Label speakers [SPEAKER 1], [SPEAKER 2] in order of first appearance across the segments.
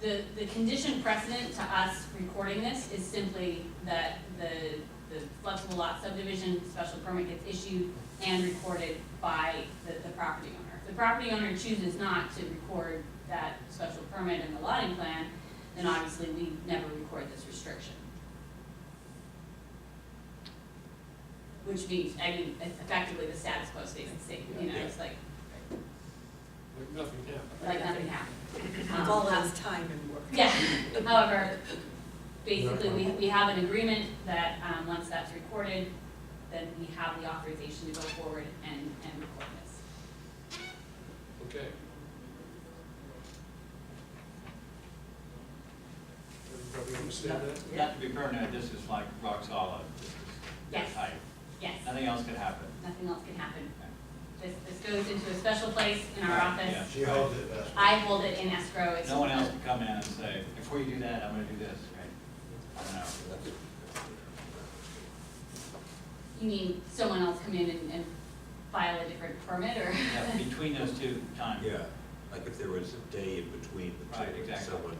[SPEAKER 1] the, the condition precedent to us recording this is simply that the, the flexible lot subdivision special permit gets issued and recorded by the, the property owner. If the property owner chooses not to record that special permit in the lotting plan, then obviously we never record this restriction. Which means, I mean, effectively the status quo stays the same, you know, it's like,
[SPEAKER 2] Like nothing happened.
[SPEAKER 1] like nothing happened.
[SPEAKER 3] It's all last time and work.
[SPEAKER 1] Um, uh, Yeah, however, basically, we, we have an agreement that, um, once that's recorded, then we have the authorization to go forward and, and record this.
[SPEAKER 2] Okay. Everybody understand that?
[SPEAKER 4] You have to be permanent, this is like rock solid, this is this
[SPEAKER 1] Yes.
[SPEAKER 4] height,
[SPEAKER 1] Yes,
[SPEAKER 4] nothing else could happen.
[SPEAKER 1] nothing else can happen. This, this goes into a special place in our
[SPEAKER 4] Yeah.
[SPEAKER 1] office.
[SPEAKER 5] She holds it uh, best.
[SPEAKER 1] I hold it in escrow. It's-
[SPEAKER 4] No one else could come in and say, before you do that, I'm gonna do this, right? I don't know.
[SPEAKER 1] You mean someone else come in and, and file a different permit or?
[SPEAKER 4] Yeah, between those two times.
[SPEAKER 6] Yeah, like if there was a day in between the two,
[SPEAKER 4] Right,
[SPEAKER 6] and
[SPEAKER 4] exactly.
[SPEAKER 6] someone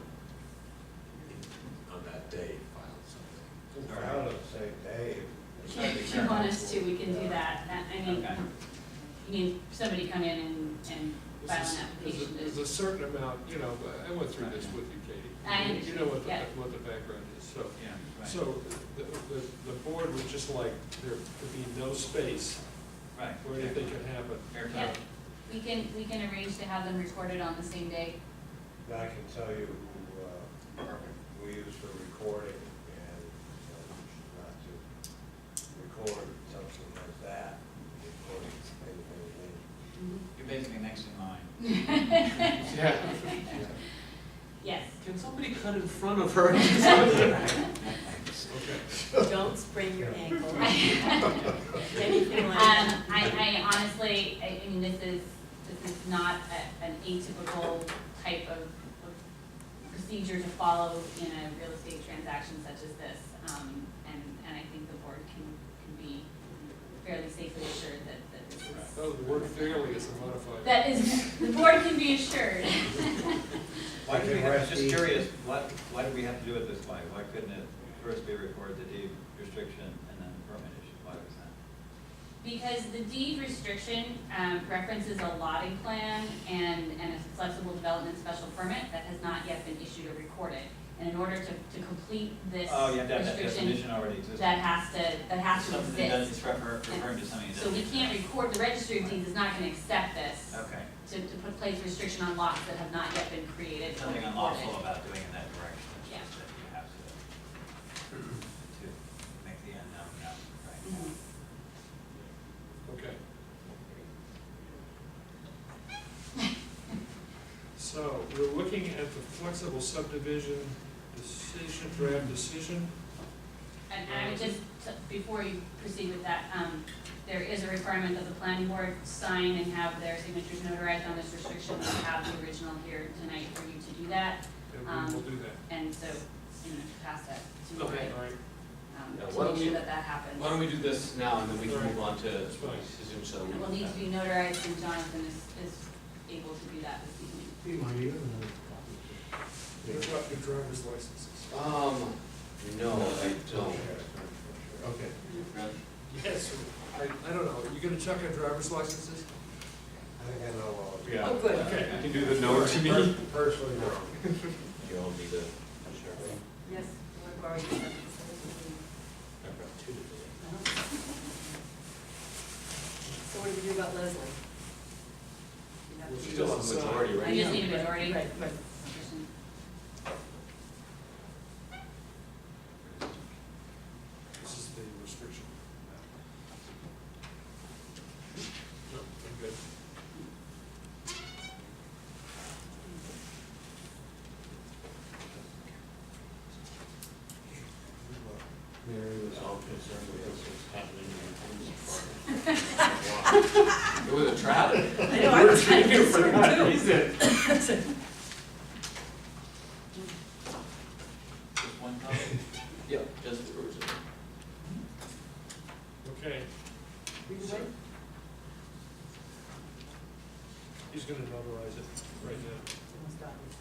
[SPEAKER 6] in- on that day filed something.
[SPEAKER 5] Or I would say, Dave,
[SPEAKER 1] If you want us to, we can do that. That- I mean,
[SPEAKER 4] Okay.
[SPEAKER 1] you mean somebody come in and, and
[SPEAKER 2] This
[SPEAKER 1] file
[SPEAKER 2] is-
[SPEAKER 1] an
[SPEAKER 2] There's a-
[SPEAKER 1] application.
[SPEAKER 2] there's a certain amount, you know, I went through this with you, Katie.
[SPEAKER 1] I
[SPEAKER 2] You- You know what the,
[SPEAKER 1] understand,
[SPEAKER 2] what the background is, so.
[SPEAKER 4] Yeah, right.
[SPEAKER 2] So the, the, the board would just like there to be no space
[SPEAKER 4] Right.
[SPEAKER 2] where anything can happen.
[SPEAKER 4] Airtight.
[SPEAKER 1] Yeah, we can, we can arrange to have them recorded on the same day.
[SPEAKER 5] I can tell you who, uh, we use for recording and, you know, you should not to record something like that, recording anything, anything.
[SPEAKER 4] You're basically next in line.
[SPEAKER 2] Yeah.
[SPEAKER 1] Yes,
[SPEAKER 2] Can somebody cut in front of her? Okay.
[SPEAKER 3] Don't sprain your ankle. Anything
[SPEAKER 1] um,
[SPEAKER 3] like that.
[SPEAKER 1] I, I honestly, I, I mean, this is, this is not a, an atypical type of of procedure to follow in a real estate transaction such as this. Um, and, and I think the board can, can be fairly safely assured that, that this is
[SPEAKER 2] Oh, the word fairly is a modifier.
[SPEAKER 1] That is, the board can be assured.
[SPEAKER 4] Why do we
[SPEAKER 5] Like
[SPEAKER 4] have,
[SPEAKER 5] the
[SPEAKER 4] just
[SPEAKER 5] rest-
[SPEAKER 4] curious, why, why do we have to do it this way? Why couldn't it first be recorded the deed restriction and then the permit issue? Why was that?
[SPEAKER 1] Because the deed restriction um, references a lotting plan and, and a flexible development special permit that has not yet been issued or recorded. And in order to, to complete this
[SPEAKER 4] Oh, you have to have that
[SPEAKER 1] restriction,
[SPEAKER 4] definition already existing.
[SPEAKER 1] that has to, that has to
[SPEAKER 4] Something that
[SPEAKER 1] exist.
[SPEAKER 4] is refer- referring to something that
[SPEAKER 1] So we
[SPEAKER 4] doesn't
[SPEAKER 1] can't
[SPEAKER 4] exist.
[SPEAKER 1] record, the registry of deeds is not gonna accept this,
[SPEAKER 4] Okay,
[SPEAKER 1] to, to put place restriction on lots that have not yet been created
[SPEAKER 4] there's
[SPEAKER 1] or
[SPEAKER 4] nothing unlawful
[SPEAKER 1] recorded.
[SPEAKER 4] about doing it in that direction, it's
[SPEAKER 1] Yeah.
[SPEAKER 4] just that you have to, to make the unknown known, right?
[SPEAKER 1] Mhm.
[SPEAKER 2] Okay. So, we're looking at the flexible subdivision decision, draft decision.
[SPEAKER 1] And I would just, t- before you proceed with that, um, there is a requirement that the planning board sign and have their signatures notarized on this restriction. We have the original here tonight for you to do that,
[SPEAKER 2] And we will do
[SPEAKER 1] and so, you know, pass that to
[SPEAKER 2] that.
[SPEAKER 1] Lori,
[SPEAKER 2] All right.
[SPEAKER 1] um,
[SPEAKER 7] Yeah,
[SPEAKER 1] to
[SPEAKER 7] why don't
[SPEAKER 1] make sure
[SPEAKER 7] we-
[SPEAKER 1] that that happens.
[SPEAKER 7] Why don't we do this now, and then we can
[SPEAKER 2] Right.
[SPEAKER 7] move on to
[SPEAKER 2] That's fine.
[SPEAKER 7] decision, so.
[SPEAKER 1] It will need to be notarized, and Jonathan is, is able to do that this evening.
[SPEAKER 2] What about your driver's licenses?
[SPEAKER 7] Um, no, I don't.
[SPEAKER 2] Okay. Yes, I, I don't know, you gonna check our driver's licenses?
[SPEAKER 5] I think I know all of you.
[SPEAKER 6] Yeah.
[SPEAKER 3] Oh, good.
[SPEAKER 2] Okay.
[SPEAKER 7] You can do the
[SPEAKER 5] Personally, no.
[SPEAKER 6] You all need a,
[SPEAKER 3] Yes, we're going to. So
[SPEAKER 6] I've got two to do.
[SPEAKER 3] what do we do about Leslie? You have
[SPEAKER 2] Well,
[SPEAKER 3] to-
[SPEAKER 2] she
[SPEAKER 7] Still on
[SPEAKER 2] doesn't
[SPEAKER 7] majority,
[SPEAKER 1] I
[SPEAKER 7] right?
[SPEAKER 1] just need a majority.
[SPEAKER 3] Right, right.
[SPEAKER 1] Christian.
[SPEAKER 2] This is the restriction. No, I'm good.
[SPEAKER 5] Mary was all concerned with this was happening in
[SPEAKER 7] It was a trap.
[SPEAKER 3] I know, I was kind of concerned too.
[SPEAKER 4] Just one copy?
[SPEAKER 7] Yeah, just the original.
[SPEAKER 2] Okay,
[SPEAKER 3] We can wait.
[SPEAKER 2] he's gonna notarize it right now.
[SPEAKER 3] Almost got it.